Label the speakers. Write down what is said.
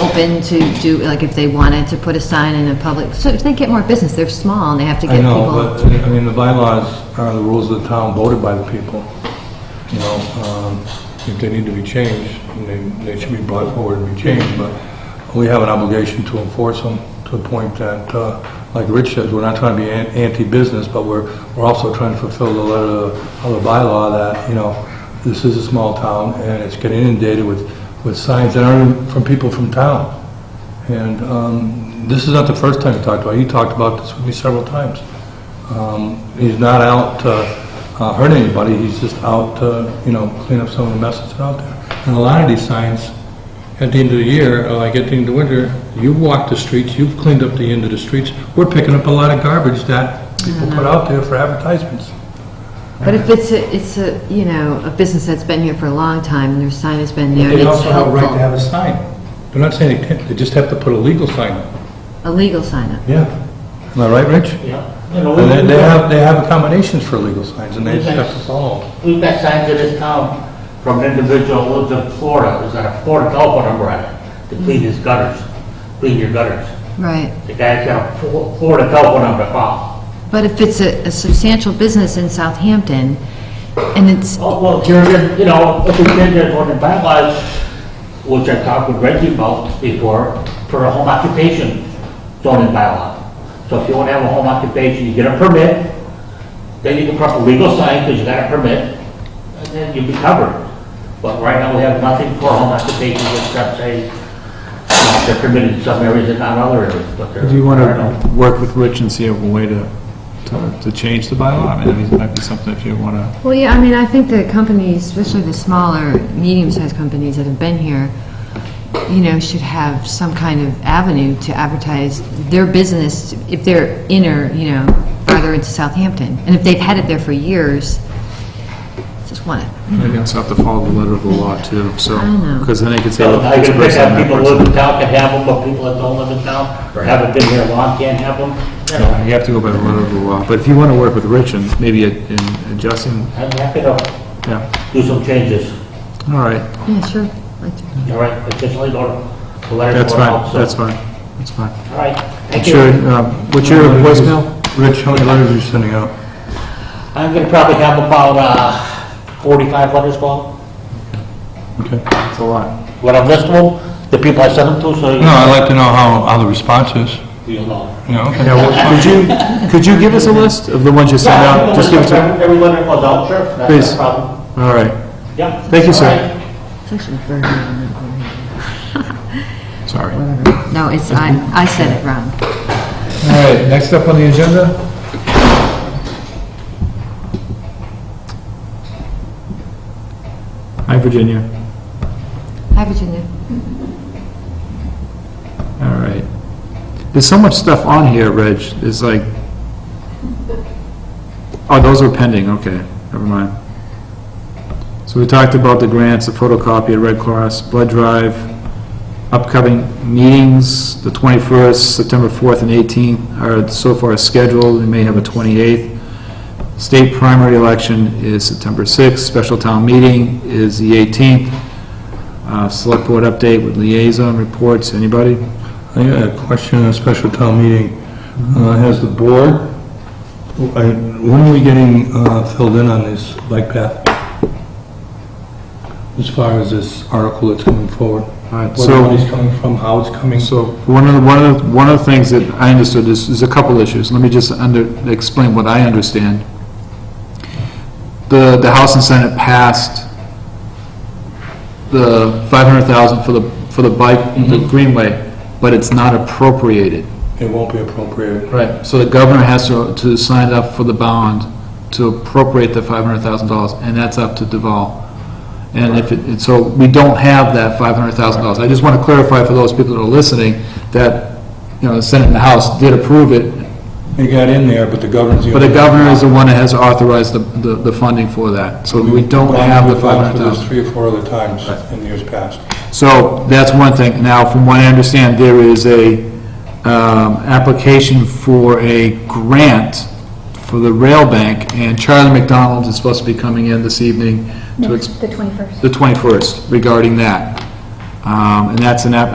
Speaker 1: open to do, like, if they wanted to put a sign in a public, so if they get more business, they're small and they have to get
Speaker 2: I know,
Speaker 1: people.
Speaker 2: but, I mean, the bylaws are the rules of the town voted by the people. You know, um, if they need to be changed, they, they should be brought forward and be changed, but we have an obligation to enforce them to the point that, uh, like Rich says, we're not trying to be an- anti-business, but we're, we're also trying to fulfill the letter of the bylaw that, you know, this is a small town and it's getting inundated with, with signs that aren't even from people from town. And um, this is not the first time you talked about it. You talked about this with me several times. Um, He's not out to uh, hurt anybody, he's just out to, you know, clean up some of the messes that are out there. And a lot of these signs, at the end of the year, or like at the end of winter, you've walked the streets, you've cleaned up the end of the streets. We're picking up a lot of garbage that people put out there for advertisements.
Speaker 1: But if it's a, it's a, you know, a business that's been here for a long time and their sign has been there and
Speaker 2: They
Speaker 1: it's
Speaker 2: also have a right to
Speaker 1: helpful,
Speaker 2: have a sign. They're not saying they can't, they just have to put a legal sign up.
Speaker 1: a legal sign up.
Speaker 2: Yeah. Am I right, Rich?
Speaker 3: Yeah. You know,
Speaker 2: And they-
Speaker 3: we've
Speaker 2: they have,
Speaker 3: got,
Speaker 2: they have accommodations for illegal signs, and they just have to follow them.
Speaker 3: we've got signs in this town from an individual who lives in Florida, who's got a Florida telephone number on it, to clean his gutters, clean your gutters.
Speaker 1: Right.
Speaker 3: The guy's got a Flo- Florida telephone number to call.
Speaker 1: But if it's a a substantial business in Southampton and it's,
Speaker 3: Oh, well, you're, you're- you know, if we did that on the bylaws, which I talked with Reggie about before, for a home occupation zoning bylaw. So if you want to have a home occupation, you get a permit, then you can put up a legal sign because you got a permit, and then you'll be covered. But right now, we have nothing for home occupations except say, uh, they're permitted in some areas and not other areas, but they're.
Speaker 4: Do you want
Speaker 3: I don't know.
Speaker 4: to work with Rich and see a way to, to, to change the bylaw? I mean, it might be something if you want to,
Speaker 1: well, yeah, I mean, I think the companies, especially the smaller, medium-sized companies that have been here, you know, should have some kind of avenue to advertise their business if they're inner, you know, farther into Southampton. And if they've had it there for years, just want it.
Speaker 4: maybe also have to follow the letter of the law too, so.
Speaker 1: I know.
Speaker 4: Because then they could say,
Speaker 3: So
Speaker 4: look,
Speaker 3: I
Speaker 4: this
Speaker 3: can pick
Speaker 4: person,
Speaker 3: up
Speaker 4: that
Speaker 3: people who live
Speaker 4: person.
Speaker 3: in town can have them, but people that don't live in town, or haven't been here long, can't have them. You know,
Speaker 4: You have to go by the letter of the law, but if you want to work with Rich and maybe in adjusting,
Speaker 3: I'm happy to
Speaker 4: yeah,
Speaker 3: do some changes,
Speaker 4: all right,
Speaker 1: Yeah, sure. Like to-
Speaker 3: all right, but just leave order.
Speaker 4: that's fine, that's fine, that's fine.
Speaker 3: All right, thank
Speaker 4: Sure,
Speaker 3: you.
Speaker 4: um, what's your voicemail?
Speaker 2: Rich, how many letters are you sending out?
Speaker 3: I'm gonna probably have about, uh, forty-five letters gone,
Speaker 2: Okay.
Speaker 4: It's a lot.
Speaker 3: when I'm listing them, the people I sent them to, so
Speaker 2: No, I'd like to know how, how the response is,
Speaker 3: you'll know.
Speaker 2: you know? okay.
Speaker 4: Yeah, well, could you, could you give us a list of the ones you sent out? Just give it to,
Speaker 3: Every letter goes out, sure, that's
Speaker 4: Please.
Speaker 3: no problem.
Speaker 4: all right,
Speaker 3: Yeah.
Speaker 4: Thank you, sir.
Speaker 3: All right.
Speaker 1: It's actually very good.
Speaker 4: sorry.
Speaker 1: No, it's, I, I said it wrong.
Speaker 2: All right, next up on the agenda?
Speaker 4: Hi, Virginia.
Speaker 1: Hi, Virginia.
Speaker 4: All right. There's so much stuff on here, Reg, it's like, oh, those are pending, okay, never mind. So we talked about the grants, the photocopy at Red Cross, blood drive, upcoming meetings, the 21st, September 4th and 18th are so far scheduled, we may have a 28th. State primary election is September 6th, special town meeting is the 18th. Uh, Select board update with liaison reports, anybody?
Speaker 2: I got a question on a special town meeting. Uh, Has the board, I- when are we getting uh, filled in on this bike path? As far as this article that's coming forward?
Speaker 4: All right,
Speaker 2: Where the
Speaker 4: so,
Speaker 2: money's coming from, how it's coming?
Speaker 4: so one of, the- one of, the- one of the things that I understood is, is a couple issues. Let me just under, explain what I understand. The, the House and Senate passed the five hundred thousand for the, for the bike, the greenway, but it's not appropriated.
Speaker 2: It won't be appropriated.
Speaker 4: Right. So the governor has to, to sign up for the bond to appropriate the five hundred thousand dollars, and that's up to Deval. And if, it- and so we don't have that five hundred thousand dollars. I just want to clarify for those people that are listening, that, you know, the Senate and the House did approve it,
Speaker 2: It got in there, but the governor's...
Speaker 4: but the governor is the one that has authorized the, the, the funding for that. So we don't have the
Speaker 2: We've
Speaker 4: five
Speaker 2: gone
Speaker 4: hundred
Speaker 2: through this
Speaker 4: thousand.
Speaker 2: three or four other times in years past.
Speaker 4: So that's one thing. Now, from what I understand, there is a um, application for a grant for the rail bank, and Charlie McDonald is supposed to be coming in this evening to, ex-
Speaker 5: The 21st.
Speaker 4: the 21st, regarding that. Um, And that's an, app.